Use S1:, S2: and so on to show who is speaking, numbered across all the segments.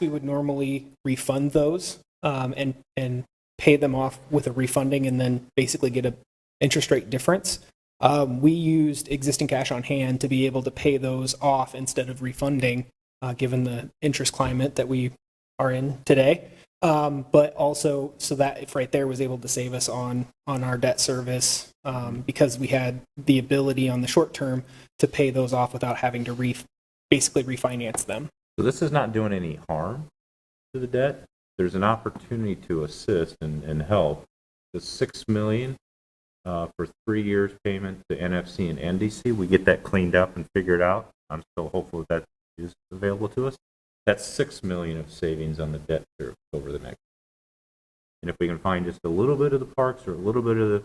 S1: we would normally refund those um, and and pay them off with a refunding and then basically get a interest rate difference. Um, we used existing cash on hand to be able to pay those off instead of refunding, uh, given the interest climate that we are in today. Um, but also, so that if right there was able to save us on on our debt service um, because we had the ability on the short term to pay those off without having to re- basically refinance them.
S2: So this is not doing any harm to the debt. There's an opportunity to assist and, and help. The six million, uh, for three years payment to NFC and NDC, we get that cleaned up and figured out. I'm still hopeful that that is available to us. That's six million of savings on the debt service over the next. And if we can find just a little bit of the parks or a little bit of the,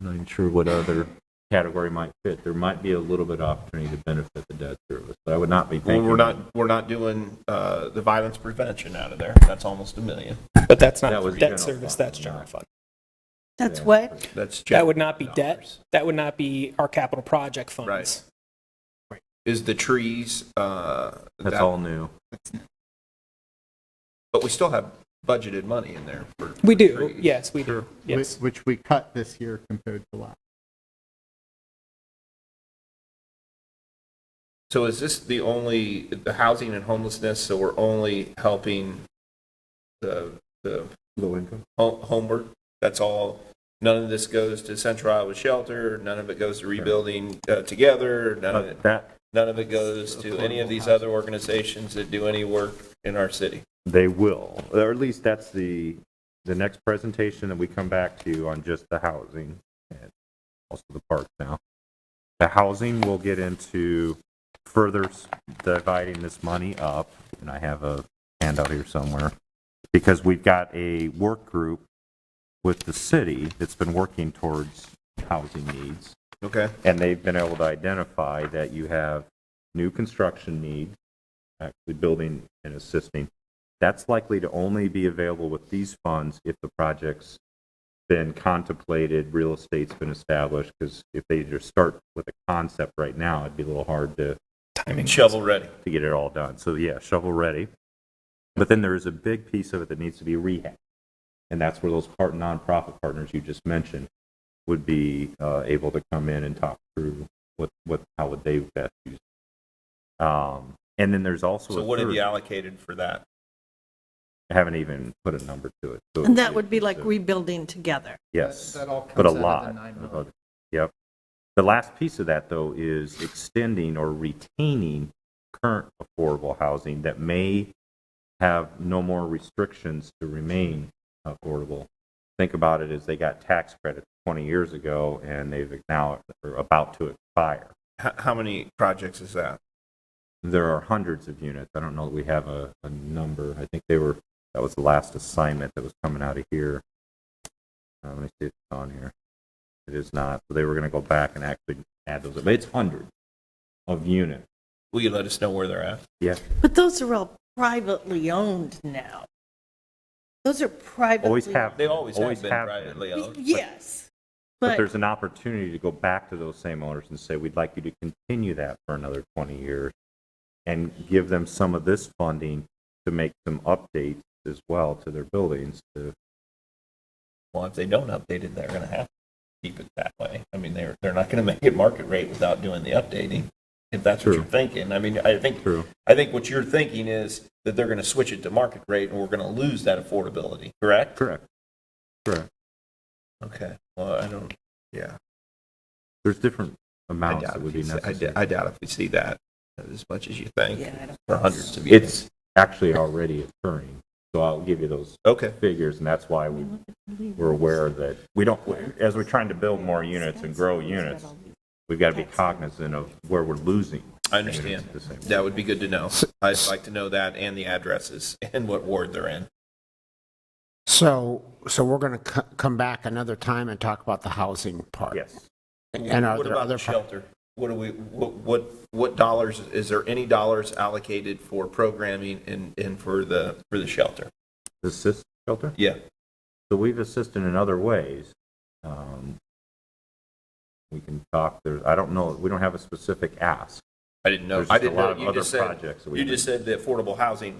S2: I'm not even sure what other category might fit, there might be a little bit of opportunity to benefit the debt service. But I would not be
S3: Well,
S2: thinking.
S3: we're not, we're not doing uh, the violence prevention out of there. That's almost a million.
S1: But that's not
S2: That was
S1: debt
S2: general
S1: service,
S2: fund,
S1: that's general
S2: not-
S1: fund.
S4: That's
S2: Yeah.
S4: what?
S3: That's.
S1: That would not be debt.
S3: dollars.
S1: That would not be our capital project funds.
S3: Right. Is the trees, uh,
S2: That's
S3: that-
S2: all new.
S3: But we still have budgeted money in there for.
S1: We
S3: for
S1: do.
S3: trees.
S1: Yes, we do.
S5: whi-
S1: Yes.
S5: Which we cut this year compared to last.
S3: So is this the only, the housing and homelessness, so we're only helping the, the
S2: Low income?
S3: ho- homeward? That's all? None of this goes to Central Iowa Shelter, none of it goes to Rebuilding uh, Together, none of it,
S2: That,
S3: none of it goes to any of these other organizations that do any work in our city?
S2: they will, or at least that's the, the next presentation that we come back to on just the housing and also the parks now. The housing will get into further s- dividing this money up, and I have a handout here somewhere, because we've got a work group with the city that's been working towards housing needs.
S3: Okay.
S2: And they've been able to identify that you have new construction needs, actually building and assisting. That's likely to only be available with these funds if the project's been contemplated, real estate's been established, because if they just start with a concept right now, it'd be a little hard to
S1: Timing.
S3: Shovel ready.
S2: to get it all done. So yeah, shovel ready. But then there is a big piece of it that needs to be rehab. And that's where those part nonprofit partners you just mentioned would be uh, able to come in and talk through what, what how would they best use. it. Um, and then there's also
S3: So
S2: a
S3: what have
S2: third-
S3: you allocated for that?
S2: I haven't even put a number to it. So it
S4: And that would be like
S2: so-
S4: rebuilding together.
S2: yes,
S5: That- that all
S2: but
S5: comes out
S2: a
S5: of the
S2: lot.
S5: nine
S2: of
S5: million.
S2: it. Yep. The last piece of that though is extending or retaining current affordable housing that may have no more restrictions to remain affordable. Think about it as they got tax credits 20 years ago and they've now are about to expire.
S3: How, how many projects is that?
S2: There are hundreds of units. I don't know that we have a, a number. I think they were, that was the last assignment that was coming out of here. Uh, let me see if it's on here. It is not. So they were going to go back and actually add those up. It's hundreds of units.
S3: Will you let us know where they're at?
S2: Yeah.
S4: But those are all privately owned now. Those are privately.
S2: Always have.
S3: They always have
S2: Always
S3: been
S2: have been.
S3: privately owned.
S4: owned. Yes,
S2: But
S4: but
S2: there's an opportunity to go back to those same owners and say, we'd like you to continue that for another 20 years and give them some of this funding to make some updates as well to their buildings to
S3: Well, if they don't update it, they're gonna have to keep it that way. I mean, they're, they're not gonna make it market rate without doing the updating, if that's what
S2: True.
S3: you're thinking. I mean, I think,
S2: True.
S3: I think what you're thinking is that they're gonna switch it to market rate and we're gonna lose that affordability, correct?
S2: Correct. Correct.
S3: Okay, well, I don't, yeah.
S2: There's different
S3: I
S2: amounts
S3: doubt
S2: that
S3: if
S2: would
S3: you
S2: be
S3: see- I d-
S2: necessary.
S3: I doubt if we see that as much as you think,
S4: Yeah, I don't-
S3: for hundreds of years.
S2: It's actually already occurring, so I'll give you those
S3: Okay,
S2: figures, and that's why we, we're aware that we don't, as we're trying to build more units and grow units, we've got to be cognizant of where we're losing.
S3: I understand.
S2: units at the same-
S3: That would be good to know. I'd like to know that and the addresses and what ward they're in.
S6: So, so we're going to come back another time and talk about the housing part?
S2: Yes.
S6: And are
S3: What
S6: there
S3: about
S6: other?
S3: the
S6: par-
S3: shelter? What do we, what, what, what dollars, is there any dollars allocated for programming and, and for the, for the shelter?
S2: Assist shelter?
S3: Yeah.
S2: So we've assisted in other ways. Um, We can talk, there, I don't know, we don't have a specific ask.
S3: I didn't know.
S2: There's
S3: I
S2: just a
S3: didn't
S2: lot
S3: know.
S2: of
S3: You
S2: other
S3: just said-
S2: projects that we
S3: You just said the affordable housing